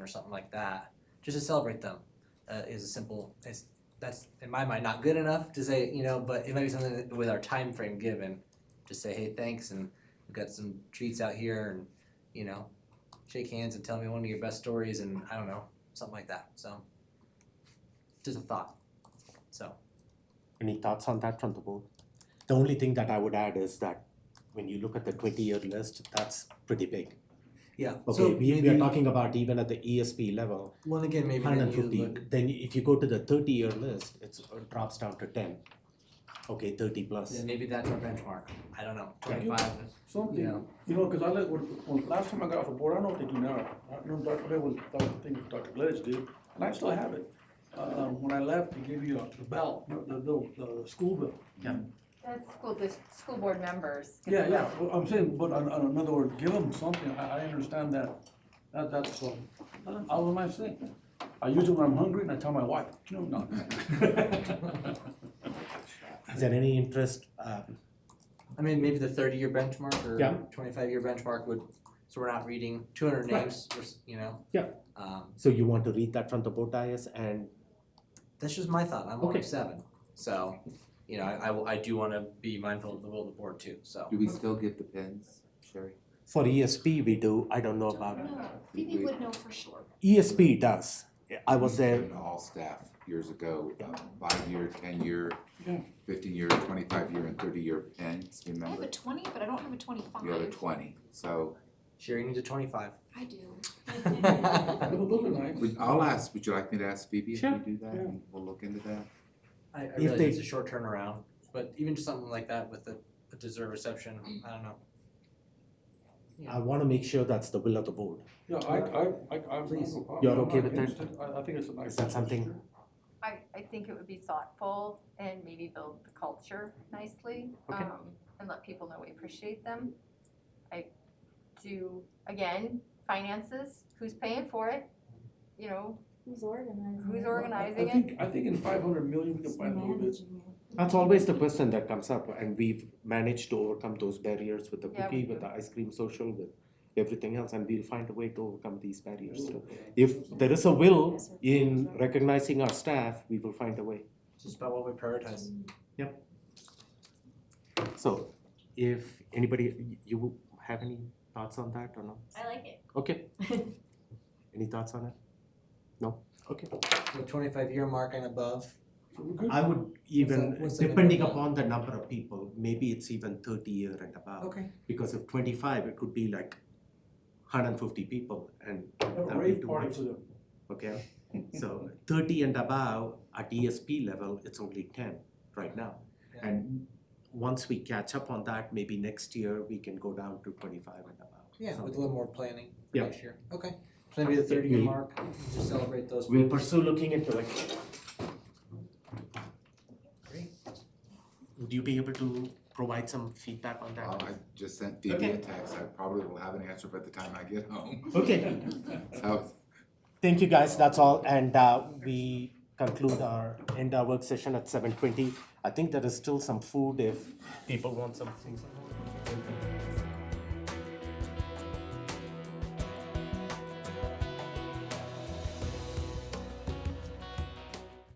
or something like that, just to celebrate them, uh, is a simple. It's, that's in my mind not good enough to say you know, but it might be something that with our time frame given, just say hey thanks and we've got some treats out here and you know, shake hands and tell me one of your best stories and I don't know something like that. So just a thought. So Any thoughts on that from the board? The only thing that I would add is that when you look at the twenty-year list, that's pretty big. yeah. so Okay, we, we are maybe- talking about even at the ESP level, Well, again, maybe hundred then and you fifty. look. Then if you go to the thirty-year list, it's, it drops down to ten. Okay, thirty Yeah, plus. maybe that's our benchmark. I don't know. Right. Twenty-five. Something, Yeah. you know, because I like, what- when, last time I got off the board, I know what they do now. I know Dr. Clay was, that thing Dr. Gledge did, and I still have it. Uh, when I left, they gave you a- the bell, the, the, the, the school bell. That's school, the school board members. Yeah, yeah, well, I'm saying, but on, on another word, give them something, I, I understand that, that, that's, um, I was my thing. I use it when I'm hungry and I tell my wife, you know, no. Is there any interest, um, I mean, maybe the thirty-year benchmark or Yeah. twenty-five-year benchmark would. So we're not reading two hundred Right. names. Or, s- you know. Yeah. Um, so you want to read that from the board dais and that's just my thought. I'm only Okay. seven, so you know I, I will- I do want to be mindful of the will of the board too. So Do we still give the pins, Sherry? for ESP, we do, I don't know about, No, Phoebe would know for sure. ESP does. I was We there, gave it to All staff years ago, um, five-year, ten-year, Yeah. fifteen-year, twenty-five-year and thirty-year pins, I have remember? a twenty, but I don't have a twenty-five. The other twenty, so Sherry needs a twenty-five. I do. I, Those are nice. would- I'll ask, would you like me to ask Phoebe if we Sure. do that? Yeah. and We'll look into that. I If realize they- it's a short turnaround, but even just something like that with the, a dessert reception, I don't know. I wanna make sure that's the will of the board. Yeah, I, I, I, I. I'm- Please. I'm- You're I'm okay not with that? against it. I, I think it's a nice. Is that something- I, I think it would be thoughtful and maybe build the culture nicely. Okay. um, And let people know we appreciate them. I do, again, finances, who's paying for it? You know, Who's organizing? who's I organizing it? think, I think in five hundred million, we can find a little bit. That's always the question that comes up, and we've managed to overcome those barriers with the Yeah, cookie, we with the ice cream social, with everything else, and we'll find a way to overcome these barriers. too. Yeah. If there is a will in recognizing our staff, we will find a way. It's just about what we prioritize. So, if anybody, you have any thoughts on that or no? I like it. Okay. Any thoughts on it? No? Okay. The twenty-five year mark and above, So we're good. I would even- even, What's the- depending upon the number of people, maybe it's even thirty year and above. okay. because if 25 it could be like 150 people and Have a that would be rave too party much. for them. okay so 30 and above at esp level it's only 10 right now Yeah. and once we catch up on that maybe next year we can go down to 25 and above Yeah, So with a little more planning for Yeah. next year. Okay. So maybe the thirty year we- mark, just celebrate those. we'll folks. pursue looking into it Great. would you be able to provide some feedback on that Well, Um, I just sent Phoebe a Okay. text, I probably will have an answer by the time I get home. okay So Thank you, guys. That's all, and uh, we conclude our end our work session at seven twenty. I think there is still some food if people want something.